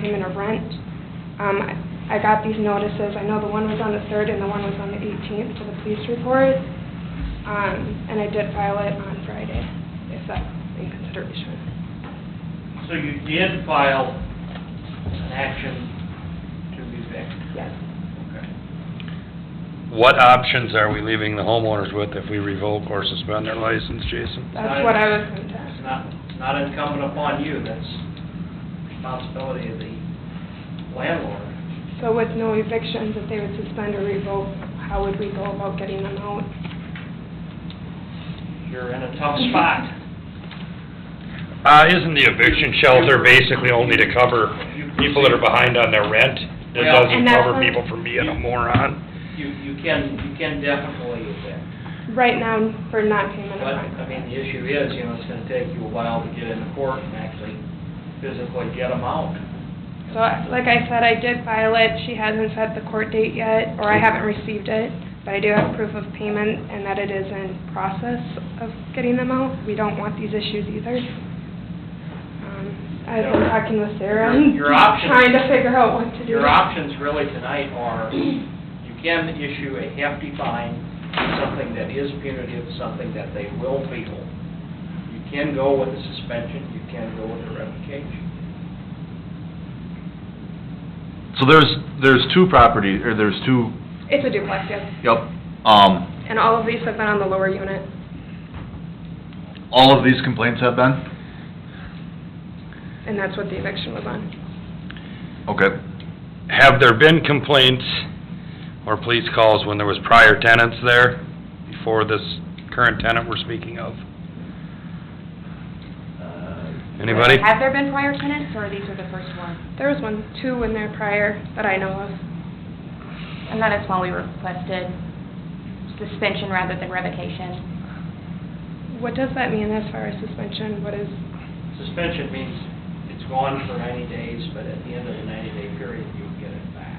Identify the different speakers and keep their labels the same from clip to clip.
Speaker 1: payment of rent. Um, I I got these notices, I know the one was on the 3rd and the one was on the 18th to the police report, Um, and I did file it on Friday, if that's in consideration.
Speaker 2: So you did file an action to evict?
Speaker 1: Yes.
Speaker 2: Okay.
Speaker 3: What options are we leaving the homeowners with if we revoke or suspend their license, Jason?
Speaker 1: That's what I was going to
Speaker 2: It's
Speaker 1: ask.
Speaker 2: not, it's not incumbent upon you, that's responsibility of the landlord.
Speaker 1: So with no evictions, if they would suspend or revoke, how would we go about getting them out?
Speaker 2: You're in a tough spot.
Speaker 3: Uh, isn't the eviction shelter basically only to cover people that are behind on their rent? It
Speaker 2: Well-
Speaker 3: doesn't
Speaker 1: And that's
Speaker 3: cover
Speaker 1: what-
Speaker 3: people from being a moron?
Speaker 2: You, you can, you can definitely evict,
Speaker 1: Right now, for non-payment
Speaker 2: but,
Speaker 1: of rent.
Speaker 2: I mean, the issue is, you know, it's gonna take you a while to get into court and actually physically get them out.
Speaker 1: So, like I said, I did file it, she hasn't set the court date yet, or I haven't received it, but I do have proof of payment and that it is in process of getting them out. We don't want these issues either. Um, I've been talking with Sarah and
Speaker 2: Your- your options-
Speaker 1: trying to figure out what to do.
Speaker 2: Your options really tonight are, you can issue a hefty fine, something that is punitive, something that they will feel. You can go with a suspension, you can go with a revocation.
Speaker 4: So there's, there's two properties, or there's two,
Speaker 1: It's a duplex, yes,
Speaker 4: yep, um,
Speaker 1: and all of these have been on the lower unit.
Speaker 4: all of these complaints have been?
Speaker 1: And that's what the eviction was on.
Speaker 4: Okay.
Speaker 3: Have there been complaints or police calls when there was prior tenants there before this current tenant we're speaking of?
Speaker 5: Uh,
Speaker 3: Anybody?
Speaker 5: Have there been prior tenants, or these are the first one?
Speaker 1: There was one, two in there prior that I know of.
Speaker 5: And that is why we requested suspension rather than revocation.
Speaker 1: What does that mean as far as suspension? What is,
Speaker 2: Suspension means it's gone for ninety days, but at the end of the ninety-day period, you get it back.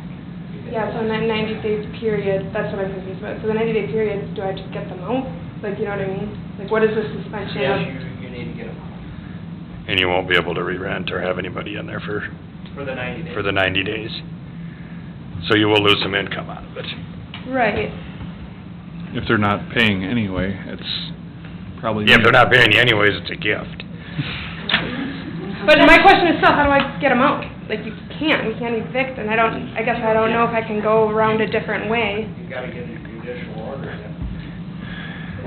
Speaker 2: You get
Speaker 1: Yeah, so
Speaker 2: it
Speaker 1: in that
Speaker 2: back.
Speaker 1: ninety day period, that's what I'm confused about, so the ninety day period, do I just get them out? Like, you know what I mean? Like, what is the suspension
Speaker 2: Yes,
Speaker 1: of?
Speaker 2: you, you need to get them out
Speaker 3: And you won't be able to re-rent or have anybody in there for,
Speaker 2: for the ninety days.
Speaker 3: for the ninety days. So you will lose some income out of it.
Speaker 1: Right,
Speaker 6: if they're not paying anyway, it's probably.
Speaker 3: Yeah, If they're not paying you anyways, it's a gift.
Speaker 1: but my question is still, how do I get them out? Like, you can't, we can't evict, and I don't, I guess I don't know if I can go around a different way.
Speaker 2: You gotta get a judicial order then.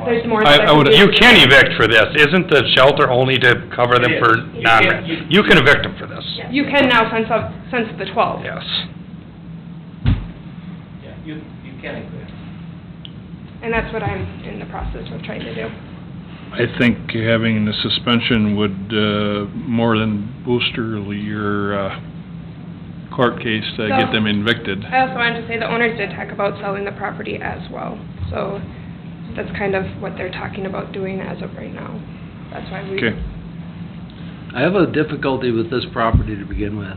Speaker 1: There's more.
Speaker 6: I- I would-
Speaker 1: specific-
Speaker 3: You can evict for this, isn't the shelter only to cover them for
Speaker 2: It is. You can't-
Speaker 3: non-rent? You can evict them for this,
Speaker 1: You can now since, of- since the twelve.
Speaker 3: yes.
Speaker 2: Yeah, you, you can include.
Speaker 1: And that's what I'm in the process of trying to do.
Speaker 6: I think having the suspension would, uh, more than booster your, uh, court case to get them evicted.
Speaker 1: I also wanted to say the owners did talk about selling the property as well, so that's kind of what they're talking about doing as of right now. That's why we.
Speaker 6: Okay.
Speaker 7: I have a difficulty with this property to begin with.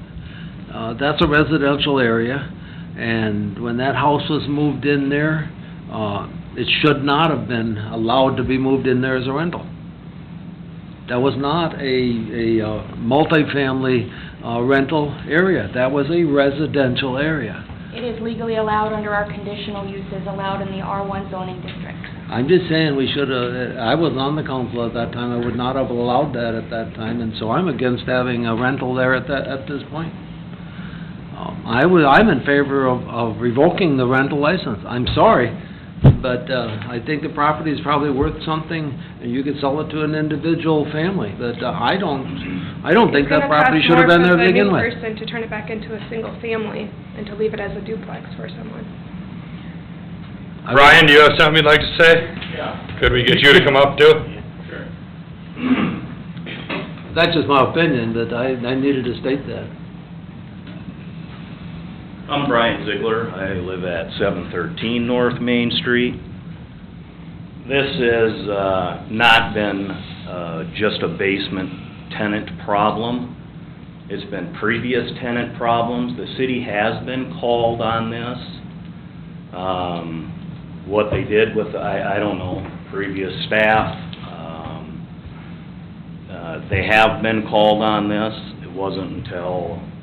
Speaker 7: Uh, that's a residential area, and when that house was moved in there, uh, it should not have been allowed to be moved in there as a rental. That was not a, a uh, multifamily uh, rental area. That was a residential area.
Speaker 5: It is legally allowed under our conditional uses allowed in the R1 zoning district.
Speaker 7: I'm just saying, we should have, I was on the council at that time, I would not have allowed that at that time, and so I'm against having a rental there at that, at this point. Um, I would, I'm in favor of, of revoking the rental license, I'm sorry, but, uh, I think the property is probably worth something, and you could sell it to an individual family, but uh, I don't, I don't think
Speaker 1: It's
Speaker 7: that
Speaker 1: gonna cost
Speaker 7: property should have been there to begin
Speaker 1: more
Speaker 7: with.
Speaker 1: for the new person to turn it back into a single family and to leave it as a duplex for someone.
Speaker 7: I-
Speaker 3: Ryan, do you have something you'd like to say?
Speaker 2: Yeah.
Speaker 3: Could we get you to come up too?
Speaker 2: Sure.
Speaker 7: That's just my opinion, but I, I needed to state that.
Speaker 8: I'm Brian Ziegler. I live at 713 North Main Street. This has uh, not been uh, just a basement tenant problem. It's been previous tenant problems. The city has been called on this. Um, What they did with, I I don't know, previous staff, um, uh, they have been called on this. It wasn't until